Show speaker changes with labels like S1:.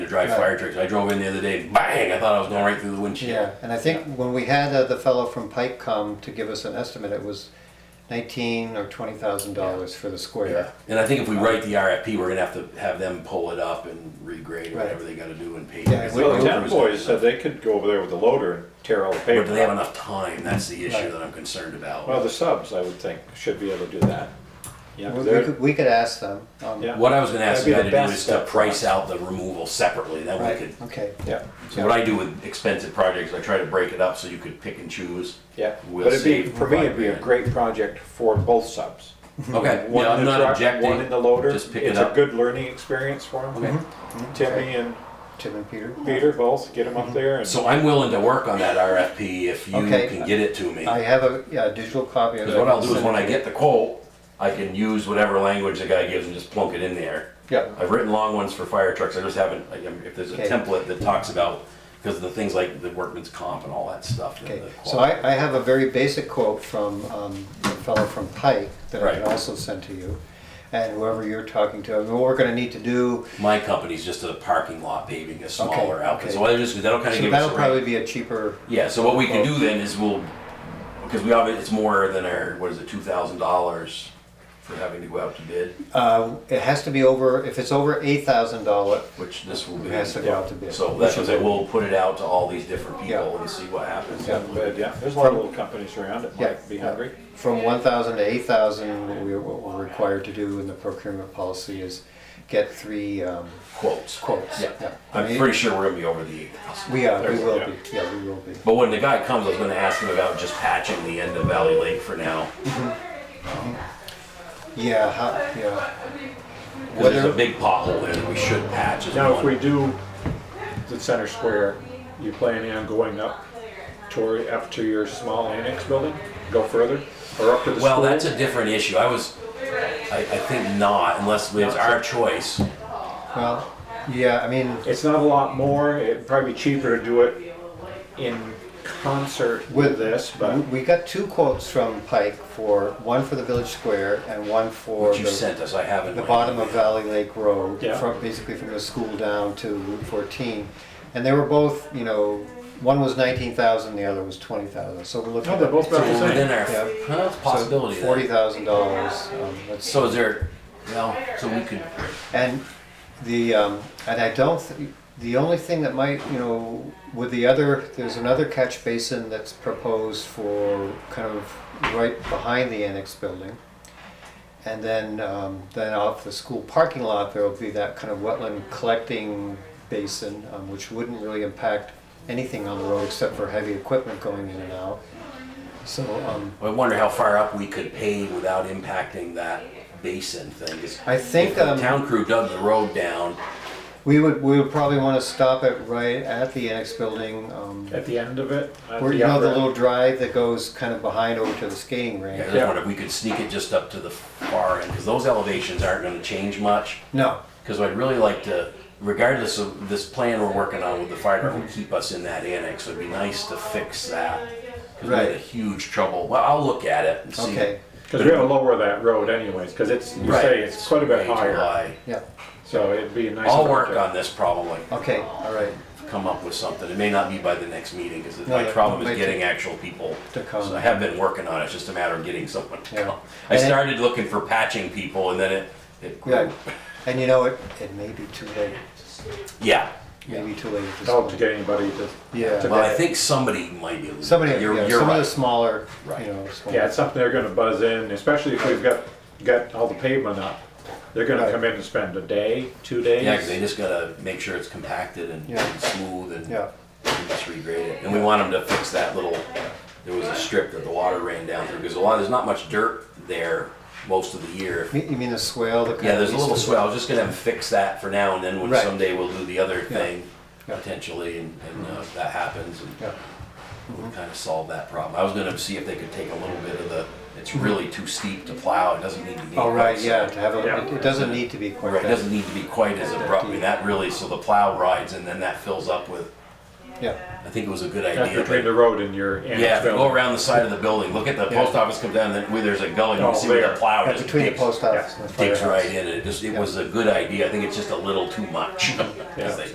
S1: dry
S2: Right.
S1: fire trucks. I drove in the other day, bang! I thought I was going right through the windshield.
S2: Yeah, and I think when we had uh, the fellow from Pike come to give us an estimate, it was nineteen or twenty thousand dollars for the square.
S1: And I think if we write the RFP, we're gonna have to have them pull it up and regrade or
S2: Right.
S1: whatever they gotta do and pave.
S2: Yeah,
S1: it.
S2: we-
S3: Well, the
S2: Road
S3: town boys said they could go over there with the loader and tear all the
S1: But do they have
S3: paper.
S1: enough time? That's the issue
S2: Right.
S1: that I'm concerned
S3: Well,
S1: about.
S3: the subs, I would think, should be able to do that. Yeah,
S2: We we
S3: they're-
S2: could, we could ask them. um,
S3: Yeah.
S1: What I was gonna ask you to
S3: That'd be
S1: do
S3: the
S1: is
S3: best
S1: to
S3: step.
S1: price out the removal separately, that we
S2: Right,
S1: could.
S2: okay,
S3: yeah,
S1: So what I do with expensive projects, I try to break it up so you could pick and choose.
S3: yeah.
S1: We'll
S3: But it'd be,
S1: save
S3: for me, it'd be a
S1: five grand.
S3: great project for both subs.
S1: Okay,
S3: One
S1: yeah,
S3: in
S1: I'm
S3: the
S1: not
S3: truck, One
S1: objecting,
S3: in the loader.
S1: just pick
S3: It's
S1: it
S3: a
S1: up.
S3: good learning experience for
S1: Okay.
S3: them.
S2: Mm-hmm.
S3: Timmy and
S2: Tim and Peter.
S3: Peter both, get them up there and.
S1: Mm-hmm. So I'm willing to work on that RFP if you
S2: Okay. Uh,
S1: can get it to me.
S2: I have a, yeah, a digital copy of it.
S1: Because what I'll do is when I get the quote, I can use whatever language the guy gives and just plunk it in there.
S2: Yeah,
S1: I've written long ones for fire trucks, I just haven't, like, um, if there's a
S2: Okay.
S1: template that talks about, because of the things like the workman's comp and all that stuff. the-
S2: okay,
S1: the
S2: so
S1: qual-
S2: I, I have a very basic quote from, um, a fellow from Pike that I can
S1: Right.
S2: also send to you. And whoever you're talking to, I mean, what we're gonna need to do,
S1: My company's just a parking lot paving, a smaller
S2: Okay,
S1: outfit,
S2: okay.
S1: so I just, that'll kind of
S2: so
S1: give us
S2: that'll
S1: a
S2: probably
S1: range.
S2: be a cheaper,
S1: Yeah, so what we can
S2: Well-
S1: do then is we'll, because we obviously, it's more than our, what is it, two thousand dollars for having to go out to bid,
S2: uh, it has to be over, if it's over eight thousand dollar,
S1: which this will be.
S2: it has to go out to bid.
S1: So that's what I say, we'll put it out to all these different people and see what happens.
S2: Yeah.
S3: But yeah, there's a lot of little companies around that
S2: Yeah.
S3: might be hungry.
S2: From one thousand to eight thousand, what we, what we're required to do in the procurement policy is get three, um,
S1: Quotes.
S2: quotes.
S1: Yeah,
S2: I
S1: I'm
S2: mean,
S1: pretty sure we're gonna be over the eight thousand.
S2: We are, we
S3: There's-
S2: will
S3: yeah.
S2: be, yeah, we will be.
S1: But when the guy comes, I was gonna ask him about just patching the end of Valley Lake for now.
S2: Yeah, how, yeah.
S1: Cause there's
S2: Whether-
S1: a big pothole there that we should patch. is
S3: Now, if
S1: one.
S3: we do the center square, you planning on going up toward, up to your small annex building? Go further, or up to the school?
S1: Well, that's a different issue. I was, I, I think not, unless it's our choice.
S2: Well, yeah, I mean,
S3: It's not a lot more, it'd probably be cheaper to do it in concert with this, but
S2: we we got two quotes from Pike for, one for the Village Square and one for
S1: What you
S2: the,
S1: sent us, I haven't.
S2: the bottom of Valley Lake Road,
S3: Yeah.
S2: from, basically from the school down to Route fourteen. And they were both, you know, one was nineteen thousand, the other was twenty thousand, so we're looking
S3: No,
S2: at.
S3: they're both
S1: So
S3: about
S1: we're
S3: the same.
S1: within our,
S2: Yeah.
S1: huh, it's a possibility then.
S2: Forty thousand dollars, um, that's
S1: So is there, well, so we could,
S2: And the, um, and I don't, th- the only thing that might, you know, with the other, there's another catch basin that's proposed for kind of right behind the annex building. And then, um, then off the school parking lot, there'll be that kind of wetland collecting basin, um, which wouldn't really impact anything on the road except for heavy equipment going in and out. So, um,
S1: I wonder how far up we could pave without impacting that basin thing. 'cause
S2: I think,
S1: if the
S2: um,
S1: Town crew dug the road down,
S2: we would, we would probably wanna stop it right at the annex building, um,
S3: at the end of it, at
S2: Where you
S3: the
S2: know the
S3: upper
S2: little drive that goes kind of behind over to the skating
S1: I
S2: rink?
S1: just wonder if we could sneak it just up to the far end, because those elevations aren't gonna change much.
S2: No,
S1: Because I'd really like to, regardless of this plan we're working on with the fire department, keep us in that annex, it'd be nice to fix that. Because we had a
S2: Right.
S1: huge trouble, well, I'll look at it and see.
S2: okay,
S3: Because we gotta lower that road anyways, because it's, you
S1: Right,
S3: say it's quite a bit
S1: way too
S3: higher,
S1: high.
S2: yeah,
S3: so it'd be a nice.
S1: I'll work
S3: project.
S1: on this problem, like,
S2: okay, all right,
S1: come up with something. It may not be by the next meeting, because
S2: No,
S1: my
S2: that
S1: problem
S2: might
S1: is getting
S2: take-
S1: actual people.
S2: to come.
S1: So I have been working on it, it's just a matter of getting someone to
S2: Yeah.
S1: come. I
S2: And it-
S1: started looking for patching people, and then it, it
S2: yeah.
S1: grew.
S2: And you know, it, it may be too late,
S1: Yeah.
S2: maybe too late at this
S3: Oh, to
S2: point.
S3: get anybody to,
S2: Yeah,
S1: Well, I
S3: Yeah.
S1: think somebody might be. able to-
S2: somebody,
S1: You're,
S2: yeah,
S1: you're
S2: some of the
S1: right.
S2: smaller, you
S1: Right.
S2: know, small-
S3: yeah, it's something they're gonna buzz in, especially if we've got, got all the pavement up. They're gonna
S2: Right.
S3: come in and spend a day, two days.
S1: Yeah, 'cause they just gotta make sure it's compacted and
S2: Yeah.
S1: and smooth and
S2: Yeah.
S1: and just regrade it. And we want them to fix that little, there was a strip that the water ran down through, because a lot, there's not much dirt there most of the year.
S2: Me- You mean the swale, the kind
S1: Yeah,
S2: of.
S1: there's a little
S2: east-
S1: swell, I was just gonna have them fix that for now, and then when
S2: Right.
S1: someday we'll do the other
S2: Yeah.
S1: thing,
S2: Yeah. Mm-hmm.
S1: potentially, and, and uh, if that happens, and
S2: Yeah, Mm-hmm.
S1: we'll kinda solve that problem. I was gonna see if they could take a little bit of the, it's really too steep to plow, it doesn't need to be.
S2: oh, right,
S1: quite so-
S2: yeah, to have, a-
S3: Yeah.
S2: it- it doesn't need to be quite
S1: Right, it
S2: that,
S1: doesn't need to be quite as abrupt, I mean, that really, so the plow rides, and then that fills up with
S2: yeah,
S1: I think it was a good
S3: That's
S1: idea.
S3: between the
S1: but-
S3: road and your annex
S1: Yeah, if you
S3: building.
S1: go around the side of the building, look at the
S2: Yeah.
S1: post office come down, then where there's a gully, you
S3: Oh,
S1: can see where
S3: there.
S1: the plow
S2: Yeah,
S1: just
S2: between the
S1: digs,
S2: post office and the
S1: digs
S2: firehouse.
S1: right in, and it just, it was a good idea, I think it's just a little too much. as
S3: Yeah.
S1: they